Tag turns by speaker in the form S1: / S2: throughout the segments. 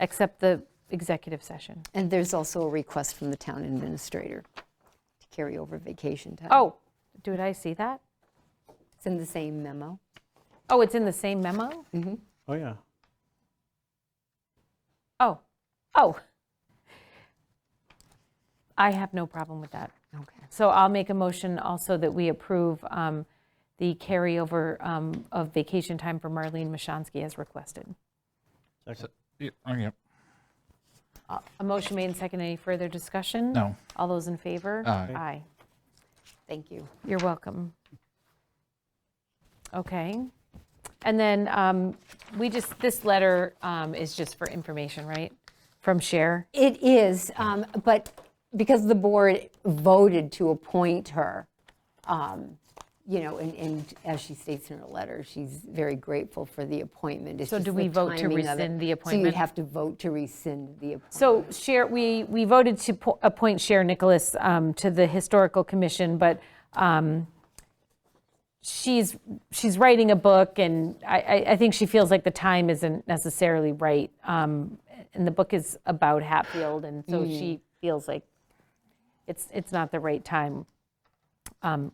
S1: except the executive session.
S2: And there's also a request from the town administrator to carry over vacation time.
S1: Oh, did I see that?
S2: It's in the same memo.
S1: Oh, it's in the same memo?
S3: Oh, yeah.
S1: Oh, oh. I have no problem with that.
S2: Okay.
S1: So I'll make a motion also that we approve um, the carryover um, of vacation time for Marlene Mashansky as requested.
S4: Yeah, oh, yeah.
S1: A motion made and seconded. Any further discussion?
S4: No.
S1: All those in favor?
S4: Aye.
S1: Aye.
S2: Thank you.
S1: You're welcome. Okay. And then um, we just, this letter um, is just for information, right? From Cher?
S2: It is, um, but because the board voted to appoint her, um, you know, and, and as she states in her letter, she's very grateful for the appointment. It's
S1: So do
S2: just
S1: we
S2: the
S1: vote to
S2: timing of it.
S1: rescind the
S2: So you'd
S1: appointment?
S2: have to vote to rescind the appointment.
S1: So Cher, we, we voted to po- appoint Cher Nicholas um, to the Historical Commission, but um, she's, she's writing a book, and I, I- I think she feels like the time isn't necessarily right. Um, And the book is about Hatfield, and so
S2: Mm.
S1: she feels like it's, it's not the right time, um,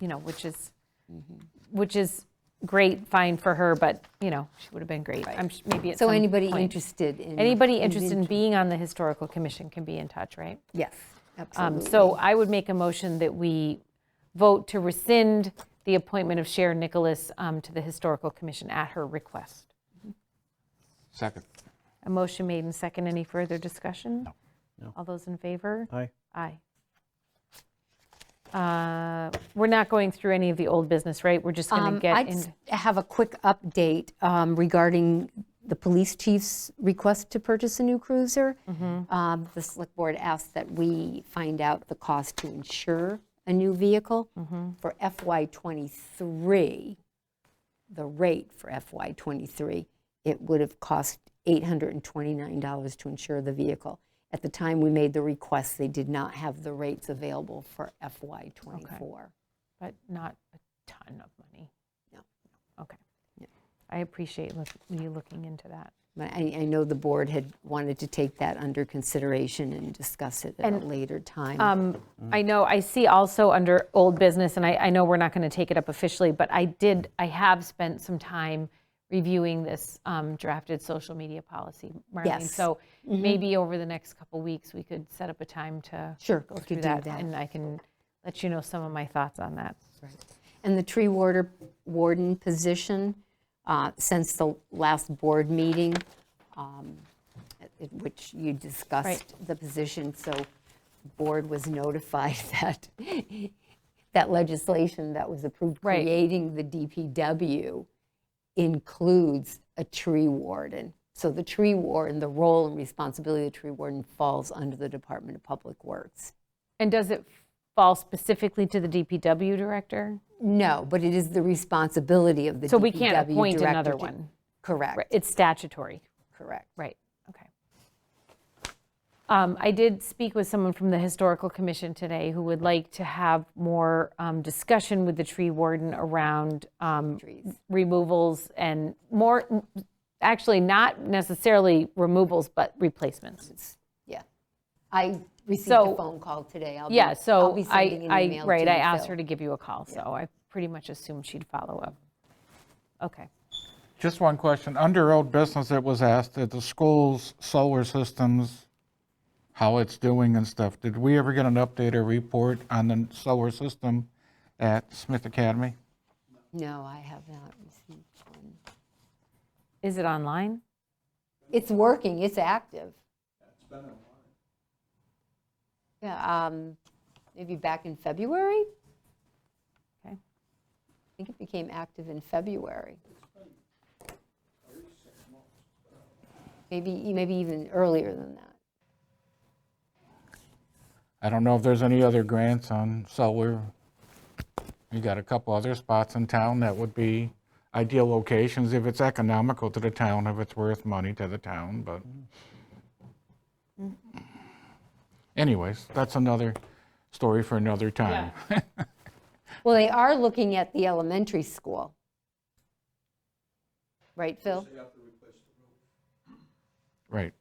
S1: you know, which is,
S2: Mm-hmm.
S1: which is great, fine for her, but, you know, she would have been great. I'm sh- Maybe at
S2: So
S1: some
S2: anybody
S1: point.
S2: interested in?
S1: Anybody interested in being on the Historical Commission can be in touch, right?
S2: Yes,
S1: Um,
S2: absolutely.
S1: So I would make a motion that we vote to rescind the appointment of Sharon Nicholas um, to the Historical Commission at her request.
S4: Second.
S1: A motion made and second. Any further discussion?
S3: No.
S1: All those in favor?
S3: Aye.
S1: Aye. Uh, We're not going through any of the old business, right? We're just going
S2: Um,
S1: to get
S2: I
S1: in.
S2: just have a quick update um, regarding the police chief's request to purchase a new cruiser.
S1: Mm-hmm.
S2: Um, The select board asked that we find out the cost to insure a new vehicle.
S1: Mm-hmm.
S2: For FY '23, the rate for FY '23, it would have cost $829 to insure the vehicle. At the time we made the request, they did not have the rates available for FY '24.
S1: but not a ton of money.
S2: No.
S1: Okay. I appreciate look- you looking into that.
S2: But I, I know the board had wanted to take that under consideration and discuss it at a later time.
S1: Um, I know, I see also under old business, and I, I know we're not going to take it up officially, but I did, I have spent some time reviewing this um, drafted social media policy, Marlene.
S2: Yes. Mm-hmm.
S1: So maybe over the next couple weeks, we could set up a time to
S2: Sure,
S1: go
S2: we could
S1: through
S2: do
S1: that,
S2: that.
S1: and I can let you know some of my thoughts on that.
S2: And the tree warder, warden position, uh, since the last board meeting, um, at- at which you discussed the position, so board was notified that, that legislation that was approved
S1: Right.
S2: creating the DPW includes a tree warden. So the tree warden, the role and responsibility of the tree warden falls under the Department of Public Works.
S1: And does it fall specifically to the DPW director?
S2: No, but it is the responsibility of the
S1: So we can't
S2: DPW
S1: appoint
S2: director
S1: another
S2: to-
S1: one? Right,
S2: Correct,
S1: It's statutory.
S2: correct.
S1: Right, okay. Um, I did speak with someone from the Historical Commission today who would like to have more um, discussion with the tree warden around um,
S2: Trees.
S1: removals and more, actually, not necessarily removals, but replacements.
S2: Yeah. I received
S1: So-
S2: a phone call today. I'll be-
S1: Yeah,
S2: I'll
S1: so
S2: be sending
S1: I,
S2: an
S1: I,
S2: email
S1: right,
S2: to
S1: I
S2: you,
S1: asked
S2: Phil.
S1: her to give you a call, so I pretty much assumed she'd follow up. Okay.
S4: Just one question. Under old business, it was asked that the school's solar systems, how it's doing and stuff. Did we ever get an update or report on the solar system at Smith Academy?
S2: No, I have not received one.
S1: Is it online?
S2: It's working, it's active. It's been a while. Yeah, um, maybe back in February?
S1: Okay.
S2: I think it became active in February. Maybe, maybe even earlier than that.
S4: I don't know if there's any other grants on solar. You got a couple other spots in town that would be ideal locations if it's economical to the town, if it's worth money to the town, but. Anyways, that's another story for another time.
S2: Well, they are looking at the elementary school. Right, Phil?
S4: Right.